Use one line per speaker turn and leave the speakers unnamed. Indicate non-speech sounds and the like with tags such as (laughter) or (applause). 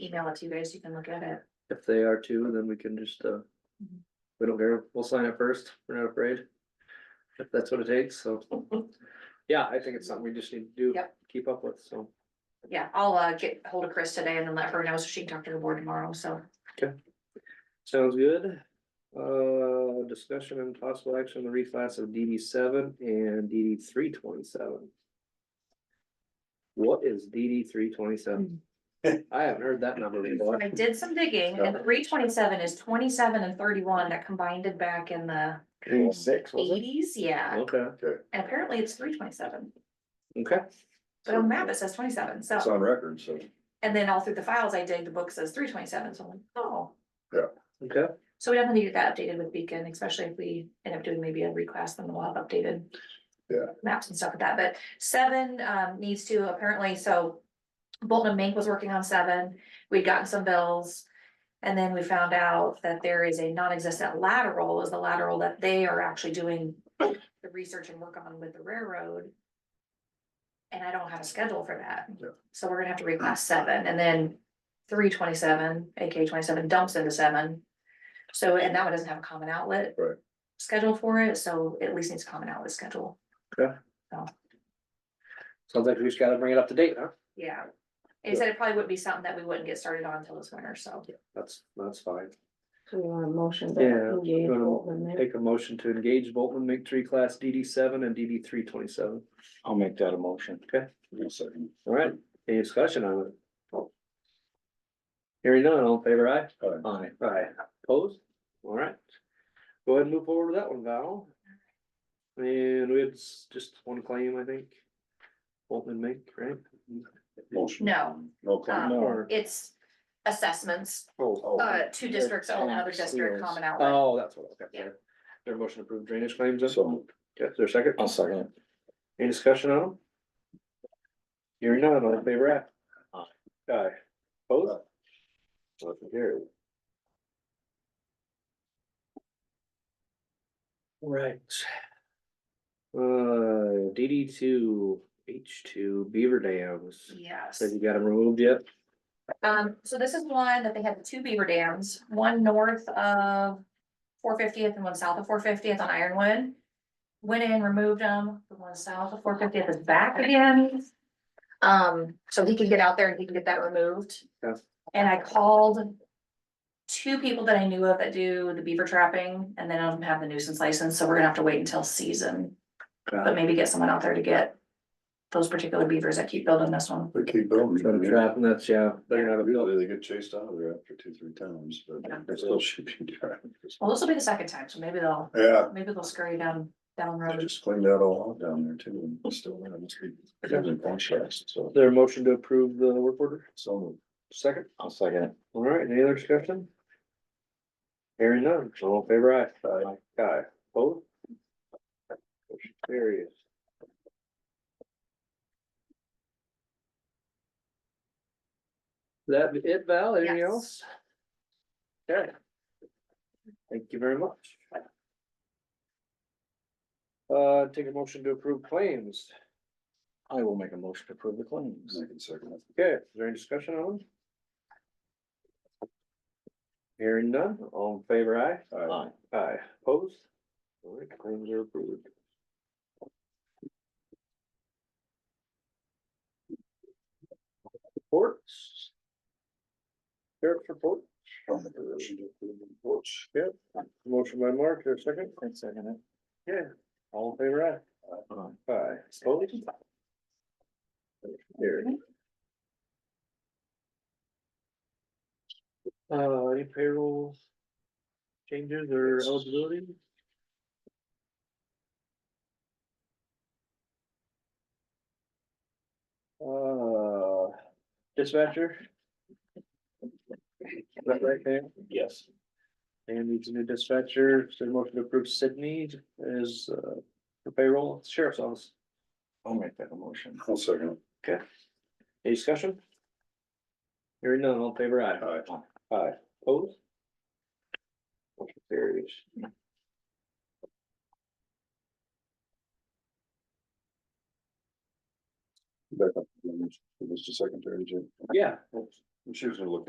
email it to you guys, you can look at it.
If they are too, then we can just, uh,
Mhm.
we don't care, we'll sign up first, we're not afraid. If that's what it takes, so, yeah, I think it's something we just need to do,
Yep.
keep up with, so.
Yeah, I'll uh get hold of Chris today and then let her know so she can talk to the board tomorrow, so.
Sounds good. Uh, discussion and possible action, on the reclass of DD seven and DD three twenty-seven. What is DD three twenty-seven? (laughs) I haven't heard that number before.
I did some digging and three twenty-seven is twenty-seven and thirty-one that combined it back in the
Six, was it?
eighties, yeah.
Okay,
And apparently it's three twenty-seven,
okay,
but on the map it says twenty-seven,
It's
so.
on record, so.
And then all through the files I dig, the book says three twenty-seven, so I'm like, oh.
okay.
So we definitely need to get that updated with Beacon, especially if we end up doing maybe a reclass, then we'll have updated.
Yeah.
Maps and stuff like that, but seven um needs to apparently, so. Bolton and Mink was working on seven, we'd gotten some bills. And then we found out that there is a non-existent lateral, is the lateral that they are actually doing the research and work on with the railroad. And I don't have a schedule for that,
Yeah.
so we're gonna have to reclass seven, and then three twenty-seven, AK twenty-seven dumps into seven. So, and that one doesn't have a common outlet.
Right.
Schedule for it, so it at least needs a common outlet schedule.
Sounds like we just gotta bring it up to date, huh?
Yeah. They said it probably wouldn't be something that we wouldn't get started on until this winter, so.
That's, that's fine.
So we want a motion
Yeah,
to engage
gonna
Bolton there.
Take a motion to engage Bolton Mink Tree Class DD seven and DD three twenty-seven.
I'll make that a motion.
Okay.
One second.
All right, any discussion on it? Hearing none, all in favor aye?
Aye.
Aye. Aye, opposed? All right. Go ahead and move forward with that one, Val. And we had s- just one claim, I think. Bolton Mink, right?
Motion.
No,
No claim.
Um,
Or-
it's assessments,
Oh,
uh, two districts own another district common
Um,
outlet.
Oh, that's what, okay.
Yeah.
Is There a motion to approve drainage claims, then?
So.
Okay, is there a second?
I'll second it.
Any discussion on them? Hearing none, all in favor aye? Aye. Opposed? Motion carried. Right. Uh, DD two, H two, Beaver Dams,
Yes.
said you got them removed yet?
Um, so this is one that they had the two beaver dams, one north of four fiftieth and one south of four fiftieth on Ironwood. Went in, removed them, the one south of four fiftieth is back again. Um, so he can get out there and he can get that removed.
Yes.
And I called two people that I knew of that do the beaver trapping and they don't have the nuisance license, so we're gonna have to wait until season. But maybe get someone out there to get those particular beavers that keep building this one.
They keep building.
Trying to trap, and that's, yeah, they're gonna have a bill.
Usually they get chased out of there after two, three times,
Yeah.
but they still should be driving.
Well, this will be the second time, so maybe they'll
Yeah,
Maybe they'll scurry down, down
they
road.
just cleaned that all out down there too, and it's still there, must be, it doesn't function, so.
Is there a motion to approve the work order?
So.
Second?
I'll second it.
All right, any other discussion? Hearing none, all in favor aye. Aye. Aye, both. Motion carries. That be it, Val, anything
Yes.
else? Okay. Thank you very much. Uh, take a motion to approve claims.
I will make a motion to approve the claims. I can second it.
Okay, is there any discussion on? them? Hearing none, all in favor, aye?
Aye.
Aye, opposed? All right, claims are approved. Reports? Sheriff's report,
I'll make a motion to approve the reports.
yep, motion by Mark, here, second,
I second it.
yeah, all in favor, aye? Aye, opposed? Carried. Uh, any payroll changes or eligibility? Uh, dispatcher? Is that right, Pam?
Yes.
And needs a new dispatcher, so the motion to approve Sydney is, uh, for payroll, sheriff's office.
I'll make that a motion. I'll second it.
Any discussion? Hearing none, all in favor aye.
Aye.
Aye, opposed? Motion carries.
Back up, Mr. Secretary, Jim.
Yeah,
She was gonna look